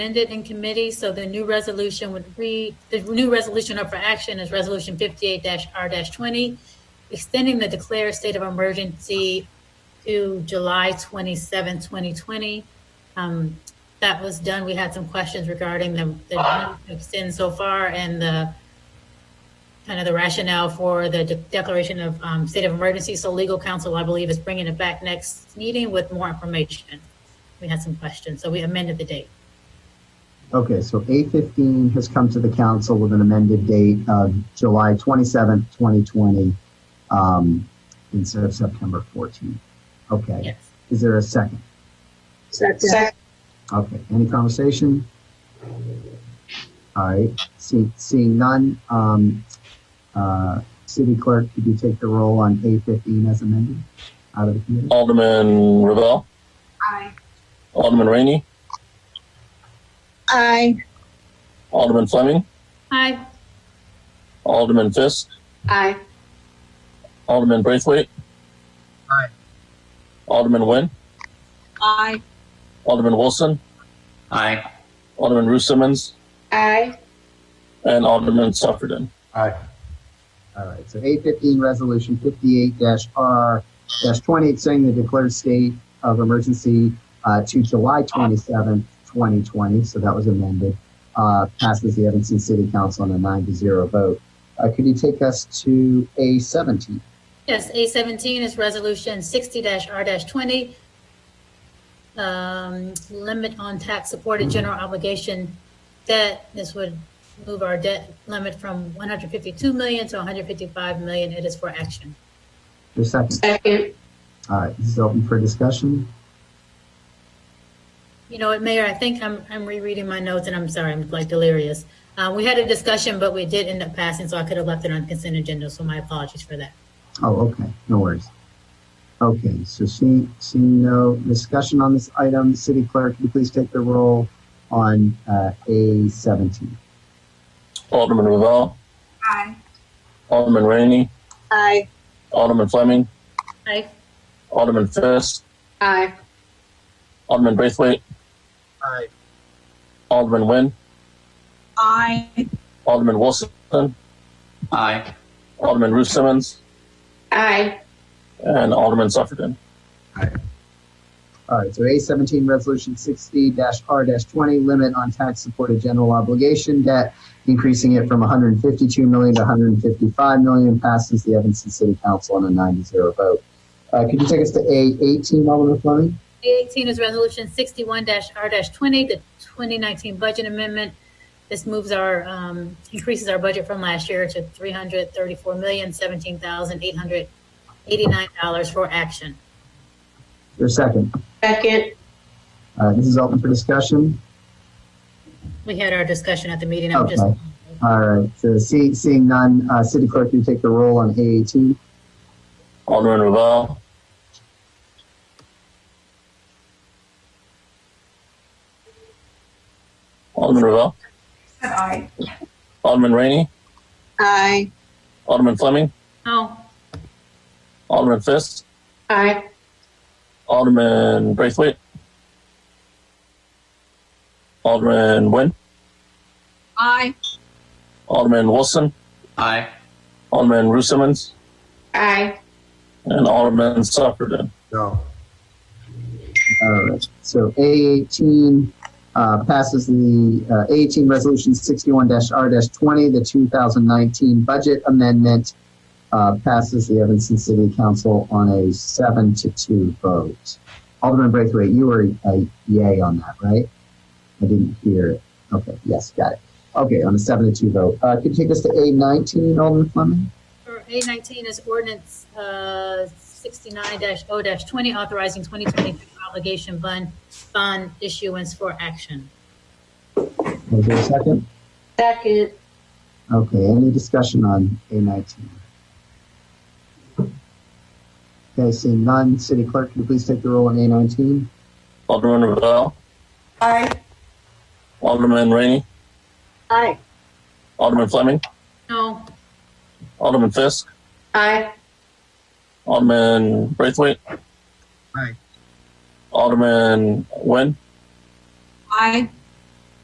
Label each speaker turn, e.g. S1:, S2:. S1: amended in committee, so the new resolution would read, the new resolution up for action is Resolution 58-R-20, extending the declared state of emergency to July 27, 2020. Um, That was done. We had some questions regarding the the extend so far and the kind of the rationale for the de- declaration of um, state of emergency. So legal counsel, I believe, is bringing it back next meeting with more information. We had some questions, so we amended the date.
S2: Okay, so A fifteen has come to the council with an amended date of July twenty-seventh, twenty twenty, um, instead of September fourteenth. Okay,
S1: Yes.
S2: is there a second?
S3: Second.
S2: Okay, any conversation? All right, see, seeing none, um, uh, city clerk, could you take the roll on A fifteen as amended out of the committee?
S4: Alderman Ravel.
S3: Aye.
S4: Alderman Rainey.
S3: Aye.
S4: Alderman Fleming.
S1: Aye.
S4: Alderman Fisk.
S3: Aye.
S4: Alderman Braithwaite.
S2: Aye.
S4: Alderman Nguyen.
S3: Aye.
S4: Alderman Wilson.
S5: Aye.
S4: Alderman Ruth Simmons.
S3: Aye.
S4: And Alderman Sufferton.
S5: Aye.
S2: All right, so A fifteen, resolution fifty-eight R twenty, extending the declared state of emergency uh, to July twenty-seventh, twenty twenty, so that was amended. Uh, passes the Evanston City Council on a nine to zero vote. Uh, could you take us to A seventeen?
S1: Yes, A seventeen is resolution sixty R twenty. Um, limit on tax supported general obligation debt. This would move our debt limit from one hundred fifty-two million to one hundred fifty-five million. It is for action.
S2: Your second.
S3: Second.
S2: All right, this is open for discussion.
S1: You know what, Mayor, I think I'm, I'm rereading my notes and I'm sorry, I'm like delirious. Uh, we had a discussion, but we did end up passing, so I could have left it on consent agenda, so my apologies for that.
S2: Oh, okay, no worries. Okay, so seeing, seeing no discussion on this item, city clerk, could you please take the roll on uh, A seventeen?
S4: Alderman Ravel.
S3: Aye.
S4: Alderman Rainey.
S3: Aye.
S4: Alderman Fleming.
S1: Aye.
S4: Alderman Fisk.
S3: Aye.
S4: Alderman Braithwaite.
S2: Aye.
S4: Alderman Nguyen.
S3: Aye.
S4: Alderman Wilson.
S5: Aye.
S4: Alderman Ruth Simmons.
S3: Aye.
S4: And Alderman Sufferton.
S2: All right, so A seventeen, resolution sixty R twenty, limit on tax supported general obligation debt, increasing it from one hundred and fifty-two million to one hundred and fifty-five million, passes the Evanston City Council on a nine to zero vote. Uh, could you take us to A eighteen, Alderman Fleming?
S1: A eighteen is resolution sixty-one R twenty, the twenty nineteen budget amendment. This moves our, um, increases our budget from last year to three hundred thirty-four million, seventeen thousand, eight hundred eighty-nine dollars for action.
S2: Your second.
S3: Second.
S2: Uh, this is open for discussion.
S1: We had our discussion at the meeting. I'm just,
S2: Okay. All right, so see, seeing none, uh, city clerk, can you take the roll on A eighteen?
S4: Alderman Ravel. Alderman Ravel.
S3: Aye.
S4: Alderman Rainey.
S3: Aye.
S4: Alderman Fleming.
S1: oh,
S4: Alderman Fisk.
S3: Aye.
S4: Alderman Braithwaite. Alderman Nguyen.
S3: Aye.
S4: Alderman Wilson.
S5: Aye.
S4: Alderman Ruth Simmons.
S3: Aye.
S4: And Alderman Sufferton.
S2: All right, so A eighteen, uh, passes the, uh, eighteen resolution sixty-one R twenty, the two thousand nineteen budget amendment, uh, passes the Evanston City Council on a seven to two vote. Alderman Braithwaite, you were a yay on that, right? I didn't hear it. Okay, yes, got it. Okay, on a seven to two vote. Uh, could you take us to A nineteen, Alderman Fleming?
S1: For A nineteen is ordinance uh, sixty-nine 0 twenty, authorizing twenty twenty-three obligation bond, bond issuance for action.
S2: Was there a second?
S3: Second.
S2: Okay, any discussion on A nineteen? Okay, seeing none, city clerk, can you please take the roll on A nineteen?
S4: Alderman Ravel.
S3: Aye.
S4: Alderman Rainey.
S3: Aye.
S4: Alderman Fleming.
S1: No,
S4: Alderman Fisk.
S3: Aye.
S4: Alderman Braithwaite.
S2: Aye.
S4: Alderman Nguyen.
S3: Aye.